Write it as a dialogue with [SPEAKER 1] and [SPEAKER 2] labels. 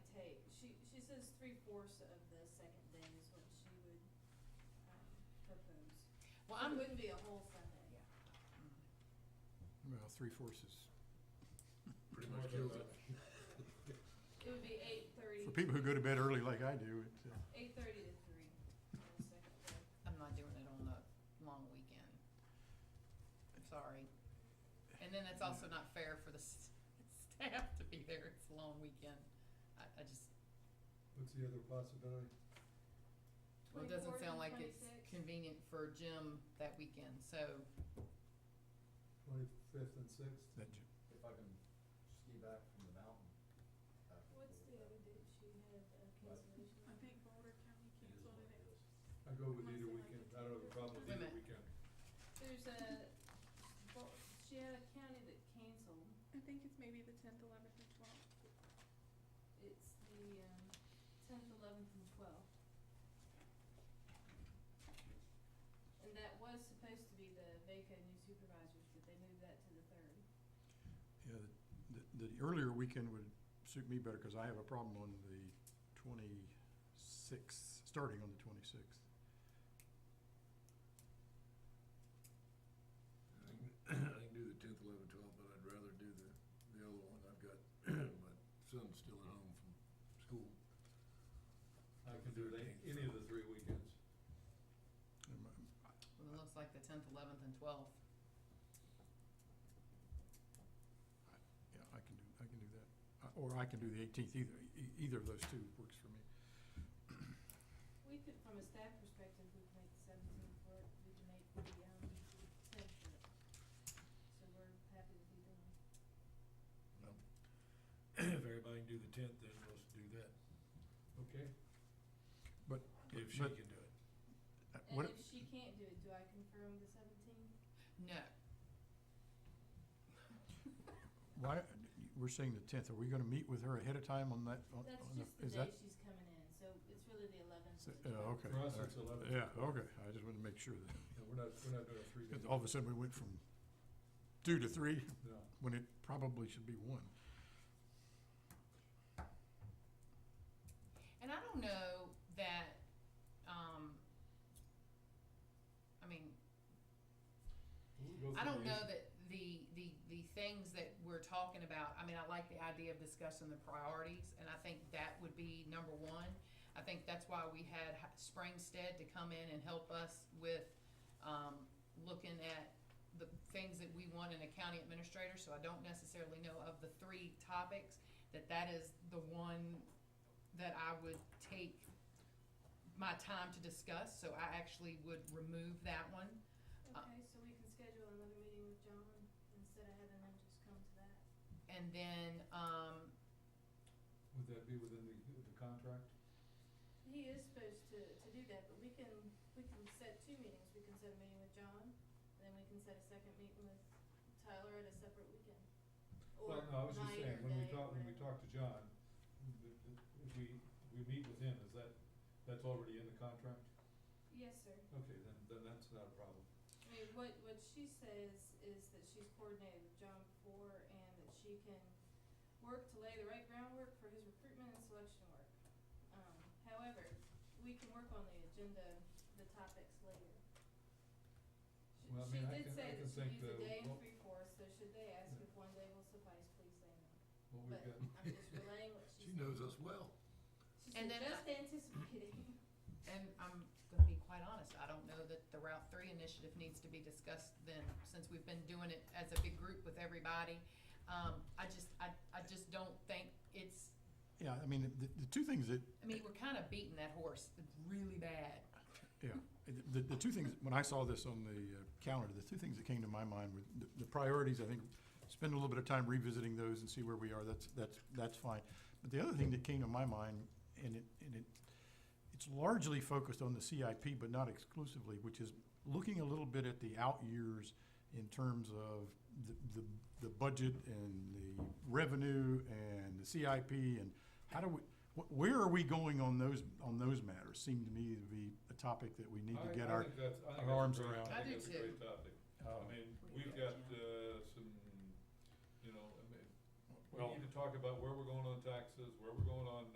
[SPEAKER 1] three fourths of the second day is what she would, um, propose.
[SPEAKER 2] Well,
[SPEAKER 1] So
[SPEAKER 2] I'm,
[SPEAKER 1] It wouldn't be a whole Sunday.
[SPEAKER 2] Yeah.
[SPEAKER 3] Well, three fourths is pretty
[SPEAKER 4] More
[SPEAKER 3] much
[SPEAKER 4] than
[SPEAKER 3] kills it.
[SPEAKER 1] It would be eight thirty.
[SPEAKER 3] For people who go to bed early like I do, it, uh,
[SPEAKER 1] Eight thirty to three on the second day.
[SPEAKER 2] I'm not doing it on the long weekend. I'm sorry. And then it's also not fair for the s- staff to be there, it's a long weekend. I, I just,
[SPEAKER 4] What's the other possibility?
[SPEAKER 2] well, it doesn't
[SPEAKER 1] 24th and
[SPEAKER 2] sound like it's
[SPEAKER 1] 26th.
[SPEAKER 2] convenient for Jim that weekend, so,
[SPEAKER 4] Twenty-fifth and sixth?
[SPEAKER 3] that j-
[SPEAKER 5] If I can ski back from the mountain. back and
[SPEAKER 1] What's the
[SPEAKER 5] forth,
[SPEAKER 1] other date she had a cancellation?
[SPEAKER 6] I think Boulder County
[SPEAKER 5] it is
[SPEAKER 6] canceled
[SPEAKER 5] what
[SPEAKER 6] it.
[SPEAKER 5] it is.
[SPEAKER 4] I go with
[SPEAKER 6] Unless
[SPEAKER 4] either
[SPEAKER 6] they like
[SPEAKER 4] weekend,
[SPEAKER 6] it.
[SPEAKER 4] I don't have a problem with
[SPEAKER 2] Wait a
[SPEAKER 4] either
[SPEAKER 2] minute.
[SPEAKER 4] weekend.
[SPEAKER 1] There's a, well, she had a county that canceled.
[SPEAKER 6] I think it's maybe the tenth, eleventh, and twelfth.
[SPEAKER 1] It's the, um, tenth, eleventh, and twelfth. And that was supposed to be the VACA new supervisors, but they moved that to the third.
[SPEAKER 3] yeah, the, the the earlier weekend would suit me better because I have a problem on the twenty-sixth, starting on the twenty-sixth.
[SPEAKER 7] I can, I can do the tenth, eleven, twelve, but I'd rather do the, the other one. I've got my son still at home from school.
[SPEAKER 4] I can do that, any of the three weekends.
[SPEAKER 3] um,
[SPEAKER 2] well, it looks like the tenth, eleventh, and twelfth.
[SPEAKER 3] Yeah, I can do, I can do that. I- Or I can do the eighteenth, either, e- either of those two works for me.
[SPEAKER 1] We could, from a staff perspective, we could make the seventeenth work, we could make the, um, tenth work. So we're happy to be done.
[SPEAKER 7] If everybody can do the tenth, then let's do that,
[SPEAKER 4] Okay.
[SPEAKER 7] if she
[SPEAKER 3] But-
[SPEAKER 7] can do it.
[SPEAKER 3] Uh,
[SPEAKER 1] And
[SPEAKER 3] What,
[SPEAKER 1] if she can't do it, do I confirm the seventeenth?
[SPEAKER 2] No,
[SPEAKER 3] why, we're saying the tenth, are we gonna meet with her ahead of time on that? on-
[SPEAKER 1] That's
[SPEAKER 3] on
[SPEAKER 1] just
[SPEAKER 3] the-
[SPEAKER 1] the
[SPEAKER 3] Oh, is that-
[SPEAKER 1] day she's coming in, so it's really the eleventh.
[SPEAKER 3] So- oh, okay.
[SPEAKER 4] For us,
[SPEAKER 3] all
[SPEAKER 4] it's eleven.
[SPEAKER 3] right. Yeah, okay, I just wanted to make sure that,
[SPEAKER 4] Yeah, we're not, we're not doing a three day.
[SPEAKER 3] because all of a sudden we went from two to three,
[SPEAKER 4] No,
[SPEAKER 3] when it probably should be one.
[SPEAKER 2] and I don't know that, um, I mean,
[SPEAKER 4] we'll go
[SPEAKER 2] I
[SPEAKER 4] for
[SPEAKER 2] don't
[SPEAKER 4] the
[SPEAKER 2] know that the, the, the things that we're talking about, I mean, I like the idea of discussing the priorities, and I think that would be number one. I think that's why we had H- Springstead to come in and help us with, um, looking at the things that we want in a county administrator, so I don't necessarily know of the three topics, that that is the one that I would take my time to discuss, so I actually would remove that one. Uh,
[SPEAKER 1] Okay, so we can schedule another meeting with John instead of having him just come to that.
[SPEAKER 2] And then, um,
[SPEAKER 4] Would that be within the, the contract?
[SPEAKER 1] He is supposed to, to do that, but we can, we can set two meetings. We can set a meeting with John, and then we can set a second meeting with Tyler at a separate weekend. Or
[SPEAKER 4] Well, no, I was just
[SPEAKER 1] night
[SPEAKER 4] saying,
[SPEAKER 1] or
[SPEAKER 4] when we
[SPEAKER 1] day,
[SPEAKER 4] talk, when we
[SPEAKER 1] whatever.
[SPEAKER 4] talk to John, th- th- if we, we meet with him, is that, that's already in the contract?
[SPEAKER 1] Yes, sir.
[SPEAKER 4] Okay, then, then that's not a problem.
[SPEAKER 1] I mean, what, what she says is that she's coordinated with John before and that she can work to lay the right groundwork for his recruitment and selection work. Um, however, we can work on the agenda, the topics later. She-
[SPEAKER 4] Well, I mean, I can- I
[SPEAKER 1] She did
[SPEAKER 4] can
[SPEAKER 1] say that
[SPEAKER 4] think
[SPEAKER 1] she needs a
[SPEAKER 4] the-
[SPEAKER 1] day and
[SPEAKER 4] what-
[SPEAKER 1] three fourths, so should they ask
[SPEAKER 4] Yeah.
[SPEAKER 1] if one day will suffice, please say no.
[SPEAKER 4] What we've got,
[SPEAKER 1] But I'm just relaying what she
[SPEAKER 7] She
[SPEAKER 1] said.
[SPEAKER 7] knows us well.
[SPEAKER 1] She
[SPEAKER 2] And
[SPEAKER 1] said,
[SPEAKER 2] then I-
[SPEAKER 1] just anticipating.
[SPEAKER 2] and I'm gonna be quite honest, I don't know that the Route Three initiative needs to be discussed then, since we've been doing it as a big group with everybody. Um, I just, I, I just don't think it's,
[SPEAKER 3] Yeah, I mean, the, the two things that,
[SPEAKER 2] I mean, we're kinda beating that horse really bad.
[SPEAKER 3] the, the two things, when I saw this on the uh, calendar, the two things that came to my mind were the, the priorities, I think, spend a little bit of time revisiting those and see where we are, that's, that's, that's fine. But the other thing that came to my mind, and it, and it, it's largely focused on the CIP, but not exclusively, which is looking a little bit at the out years in terms of the, the, the budget and the revenue and the CIP and how do we, wh- where are we going on those, on those matters? Seemed to me to be a topic that we need to
[SPEAKER 4] I,
[SPEAKER 3] get
[SPEAKER 4] I
[SPEAKER 3] our,
[SPEAKER 4] think that's, I
[SPEAKER 3] our
[SPEAKER 4] think that's a
[SPEAKER 3] arms
[SPEAKER 4] great-
[SPEAKER 3] around.
[SPEAKER 2] I
[SPEAKER 4] I think
[SPEAKER 2] do
[SPEAKER 4] that's a
[SPEAKER 2] too.
[SPEAKER 4] great topic. I mean, we've got, uh, some, you know, I mean, we
[SPEAKER 3] Well-
[SPEAKER 4] need to talk about where we're going on taxes, where we're going on